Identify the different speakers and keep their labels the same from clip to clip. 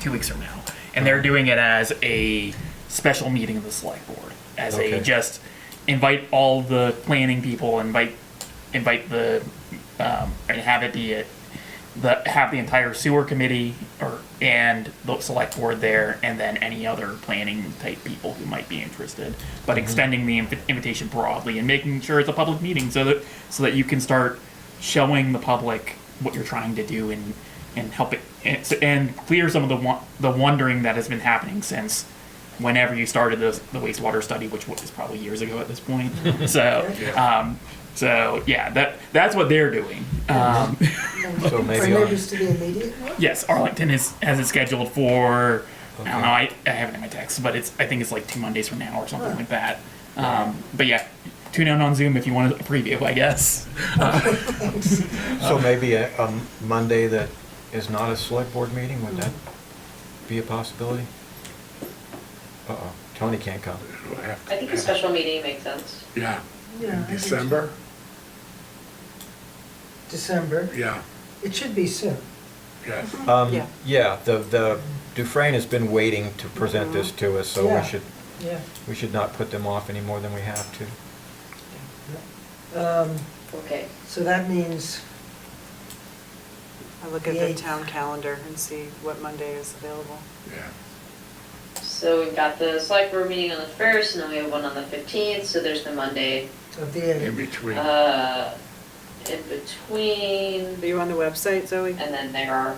Speaker 1: two weeks from now. And they're doing it as a special meeting of the select board, as a
Speaker 2: Okay.
Speaker 1: just invite all the planning people, invite invite the um, and have it be it the have the entire sewer committee or and the select board there, and then any other planning type people who might be interested. But extending the inv- invitation broadly and making sure it's a public meeting, so that so that you can start showing the public what you're trying to do and and help it and, so- and clear some of the wa- the wondering that has been happening since whenever you started the, the wastewater study, which was probably years ago at this point. so, um, so yeah, that that's what they're doing. Um,
Speaker 2: So maybe
Speaker 3: For
Speaker 2: on-
Speaker 3: neighbors to the immediate one?
Speaker 1: yes, Arlington is has it scheduled for. I don't know. I, I have it in my text, but it's I think it's like two Mondays from now or something like that. Um, but yeah, tune in on Zoom if you want a preview. I guess.
Speaker 2: So maybe a, a Monday that is not a select board meeting, would that be a possibility? Uh-oh, Tony can't come.
Speaker 4: Do I have
Speaker 5: I think a
Speaker 4: to-
Speaker 5: special meeting makes sense.
Speaker 4: Yeah,
Speaker 3: Yeah, I
Speaker 4: in
Speaker 3: think so.
Speaker 4: December,
Speaker 3: December.
Speaker 4: yeah,
Speaker 3: It should be soon.
Speaker 4: yes.
Speaker 2: Um,
Speaker 6: Yeah.
Speaker 2: yeah, the, the Dufrain has been waiting to present
Speaker 6: Mm-hmm.
Speaker 2: this to us, so
Speaker 3: Yeah.
Speaker 2: we should,
Speaker 3: Yeah.
Speaker 2: we should not put them off any more than we have to.
Speaker 3: Um,
Speaker 5: Okay.
Speaker 3: So that means,
Speaker 6: I look at
Speaker 3: The
Speaker 6: the
Speaker 3: eighth.
Speaker 6: town calendar and see what Monday is available.
Speaker 4: Yeah.
Speaker 5: So we've got the select board meeting on the first, and then we have one on the fifteenth, so there's the Monday,
Speaker 3: of the
Speaker 4: In
Speaker 3: eighth,
Speaker 4: between,
Speaker 5: uh, in
Speaker 6: Are
Speaker 5: between.
Speaker 6: you on the website, Zoe?
Speaker 7: Uh,
Speaker 5: And then there are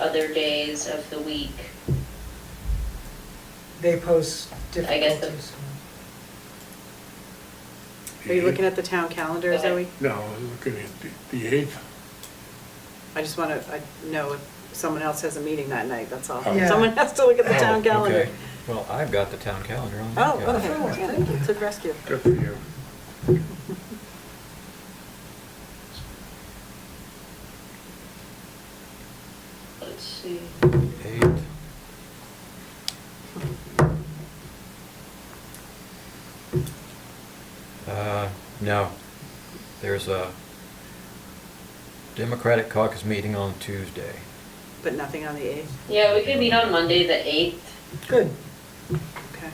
Speaker 5: other days of the week.
Speaker 3: they pose
Speaker 5: I guess the-
Speaker 3: difficulties.
Speaker 6: Are you looking at the town calendar, Zoe?
Speaker 4: no, I was looking at the- the eighth,
Speaker 6: I just want to know if someone else has a meeting that night, that's all.
Speaker 3: Yeah.
Speaker 6: Someone has to look at the
Speaker 2: Oh,
Speaker 6: town calendar.
Speaker 2: okay. Well, I've got the town calendar on.
Speaker 6: Oh,
Speaker 2: Yeah.
Speaker 6: okay,
Speaker 3: Oh,
Speaker 6: Yeah,
Speaker 3: thank you.
Speaker 6: to rescue.
Speaker 4: good for you.
Speaker 5: Let's see.
Speaker 2: Eight. Uh, no, there's a Democratic caucus meeting on Tuesday.
Speaker 6: But nothing on the 8th,
Speaker 5: Yeah, we could meet on Monday, the eighth.
Speaker 3: Good.
Speaker 6: okay.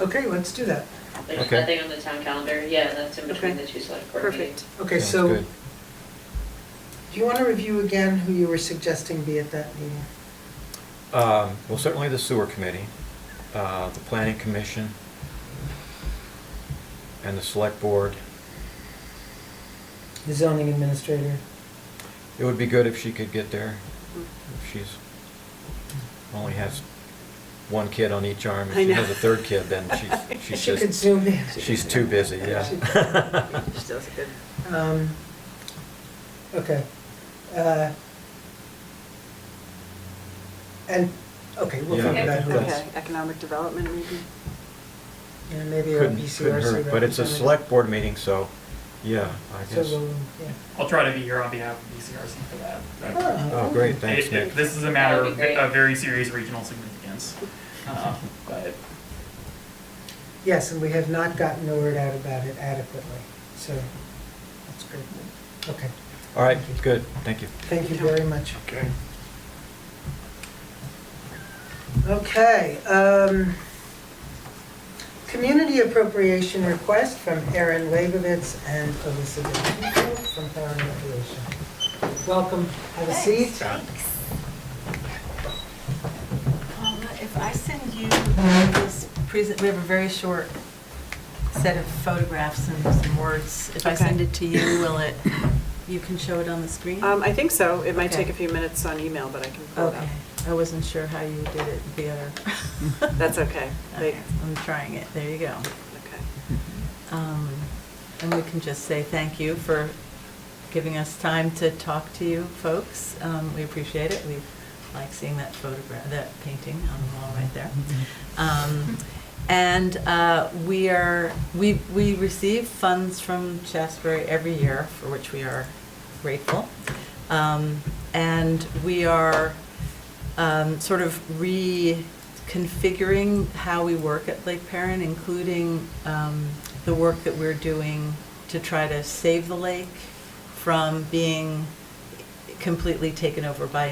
Speaker 3: Okay, let's do that.
Speaker 5: There's
Speaker 2: Okay.
Speaker 5: nothing on the town calendar. Yeah, that's in between
Speaker 6: Okay.
Speaker 5: the two select board meetings.
Speaker 6: Perfect.
Speaker 3: Okay,
Speaker 2: Sounds
Speaker 3: so,
Speaker 2: good.
Speaker 3: do you want to review again who you were suggesting be at that meeting?
Speaker 2: Um, well, certainly the sewer committee, uh, the planning commission, and the select board.
Speaker 3: The zoning administrator?
Speaker 2: It would be good if she could get there, if she's, only has one kid on each arm. If
Speaker 6: I
Speaker 2: she
Speaker 6: know.
Speaker 2: has a third kid, then she's, she's
Speaker 3: She
Speaker 2: just.
Speaker 3: could zoom in.
Speaker 2: She's too busy, yeah.
Speaker 6: She does a good,
Speaker 3: Um, Okay. Uh, And, okay, we'll
Speaker 2: Yeah,
Speaker 3: figure
Speaker 5: Okay.
Speaker 3: out who it is.
Speaker 6: okay, economic development maybe?
Speaker 3: And maybe our
Speaker 2: Couldn't,
Speaker 3: BCRC
Speaker 2: couldn't hurt,
Speaker 3: representative.
Speaker 2: but it's a select board meeting, so, yeah, I
Speaker 3: So
Speaker 2: guess.
Speaker 3: we'll, yeah.
Speaker 1: I'll try to be here on behalf of E BCRC for that.
Speaker 4: That-
Speaker 2: Oh, great, thanks,
Speaker 1: It- it-
Speaker 2: Nick.
Speaker 1: This is a matter
Speaker 5: That'd
Speaker 1: of
Speaker 5: be great.
Speaker 1: of very serious regional significance. Uh, But
Speaker 3: Yes, and we have not gotten the word out about it adequately, so that's great. Okay,
Speaker 2: All right, good, thank you.
Speaker 3: thank you very much.
Speaker 4: Okay,
Speaker 3: Okay, um, community appropriation request from Aaron Leibovitz and Elizabeth Hinkle from Power and Recreation. Welcome, have a seat.
Speaker 7: Um, If I send you this present, we have a very short set of photographs and some words. If I
Speaker 6: Okay.
Speaker 7: send it to you, will it, you can show it on the screen?
Speaker 6: Um, I think so, it might take
Speaker 7: Okay.
Speaker 6: a few minutes on email, but I can pull it
Speaker 7: Okay,
Speaker 6: up.
Speaker 7: I wasn't sure how you did it via.
Speaker 6: That's okay, they,
Speaker 7: Okay, I'm trying it, there you go.
Speaker 6: okay.
Speaker 7: Um, And we can just say thank you for giving us time to talk to you folks. Um, We appreciate it. We like seeing that photograph, that painting on the wall right there. Um, And uh, we are, we, we receive funds from Shasberry every year, for which we are grateful. Um, And we are um, sort of reconfiguring how we work at Lake Perrin, including um, the work that we're doing to try to save the lake from being completely taken over by